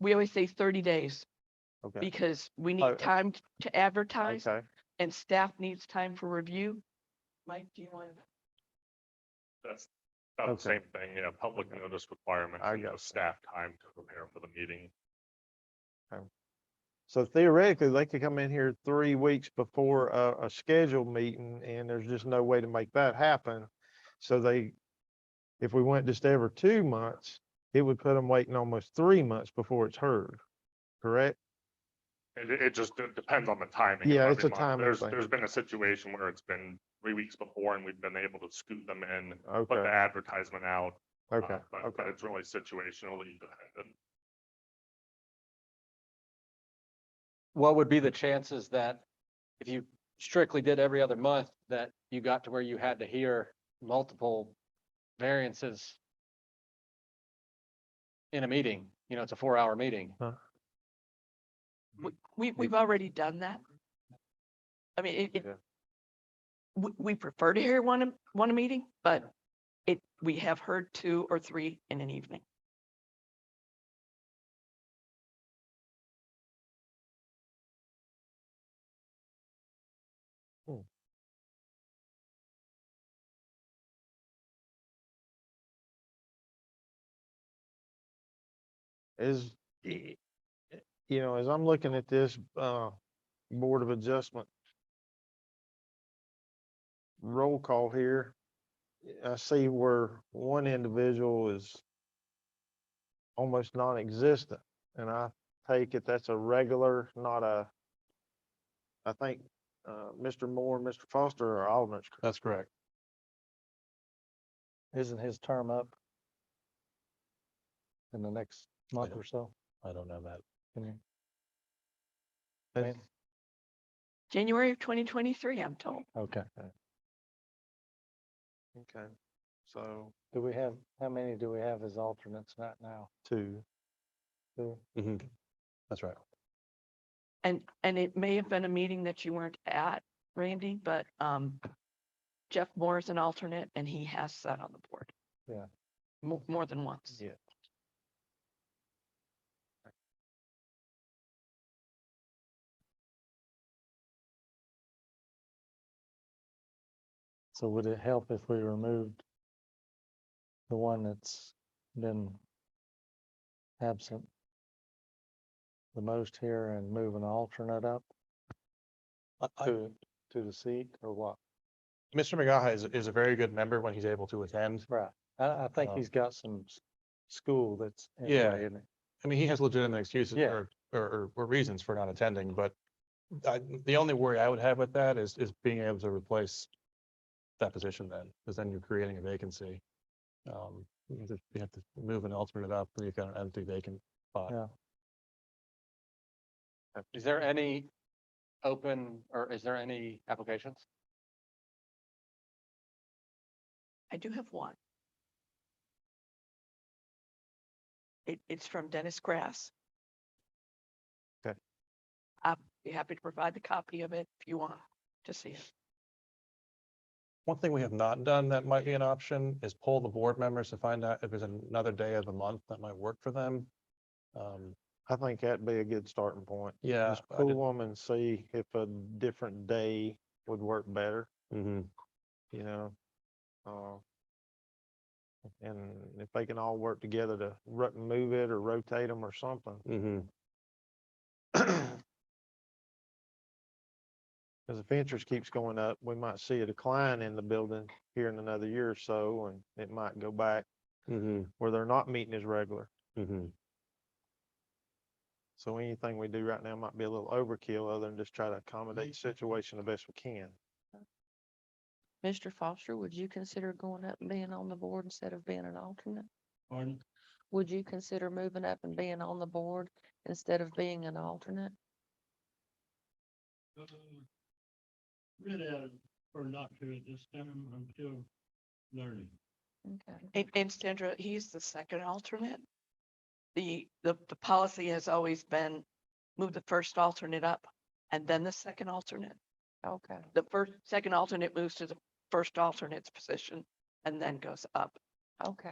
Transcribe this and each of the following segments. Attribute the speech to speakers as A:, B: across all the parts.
A: we always say thirty days
B: Okay,
A: because we
B: Oh,
A: need time t- to advertise
B: okay.
A: and staff needs time for review. Mike, do you want?
C: That's about the
B: Okay.
C: same thing, yeah, public notice requirement,
B: I
C: and
B: got
C: give staff time to prepare for the meeting.
B: So theoretically, they could come in here three weeks before a, a scheduled meeting and there's just no way to make that happen. So they, if we went just every two months, it would put them waiting almost three months before it's heard, correct?
C: It, it- it just de- depends on the timing. of
B: Yeah, it's
C: every
B: a
C: month.
B: timing
C: There's,
B: thing.
C: there's been a situation where it's been three weeks before and we've been able to scoot them in, put the
B: Okay,
C: advertisement out. uh,
B: okay,
C: but-
B: okay.
C: But it's really situationally dependent.
D: what would be the chances that if you strictly did every other month, that you got to where you had to hear multiple variances in a meeting, you know, it's a four-hour meeting.
A: We, we, we've already done that. I mean, it, it.
B: Yeah.
A: We, we prefer to hear one, a- one a meeting, but it, we have heard two or three in an evening.
B: is, y- you know, as I'm looking at this, uh, Board of Adjustment roll call here, I see where one individual is almost non-existent, and I take it that's a regular, not a, I think, uh, Mr. Moore and Mr. Foster are alternates. correct?
D: That's correct. Isn't his term up? In the next month or so? I don't know that.
B: That's-
A: January of twenty twenty-three, I'm told.
D: Okay.
B: Okay, so
D: Do we have, how many do we have as alternates right now?
B: two.
D: Mm-hmm. That's right.
A: And, and it may have been a meeting that you weren't at, Randy, but, um, Jeff Moore is an alternate and he has sat on the board.
D: Yeah.
A: More, more than once.
B: Yeah.
D: So would it help if we removed the one that's been absent the most here and move an alternate up to, to the seat or what?
E: Mr. McGaha is, is a very good member when he's able to attend.
D: Right, I, I think
E: Um,
D: he's got some s- school that's. in the
E: Yeah.
D: way, isn't it?
E: I mean, he has legitimate excuses
D: Yeah.
E: or, or, or reasons for not attending, but I, the only worry I would have with that is, is being able to replace that position then, because then you're creating a vacancy. Um, You have to you have to move an alternate up, and you've got an empty vacant spot.
D: Yeah.
F: Is there any open or is there any applications?
A: I do have one. It, it's from Dennis Grass.
B: Okay.
A: I'd be happy to provide the copy of it if you want to see it.
E: One thing we have not done that might be an option is poll the board members to find out if there's another day of the month that might work for them. Um,
B: I think that'd be a good starting point.
E: Yeah.
B: Just pull them and see if a different day would work better,
E: Mm-hmm.
B: you know? Uh, And if they can all work together to ro- move it or rotate them or something.
E: Mm-hmm.
B: Cause if interest keeps going up, we might see a decline in the building here in another year or so, and it might go back
E: Mm-hmm.
B: where they're not meeting as regular.
E: Mm-hmm.
B: So anything we do right now might be a little overkill, other than just try to accommodate the situation the best we can.
A: Mr. Foster, would you consider going up and being on the board instead of being an alternate? Would you consider moving up and being on the board instead of being an alternate?
G: Uh, Really, I prefer not to at this time. I'm still learning.
A: Okay. And, and Sandra, he's the second alternate. The, the, the policy has always been move the first alternate up and then the second alternate. Okay. The first, second alternate moves to the first alternate's position and then goes up.
H: Okay,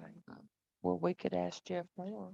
H: well, we could ask Jeff Moore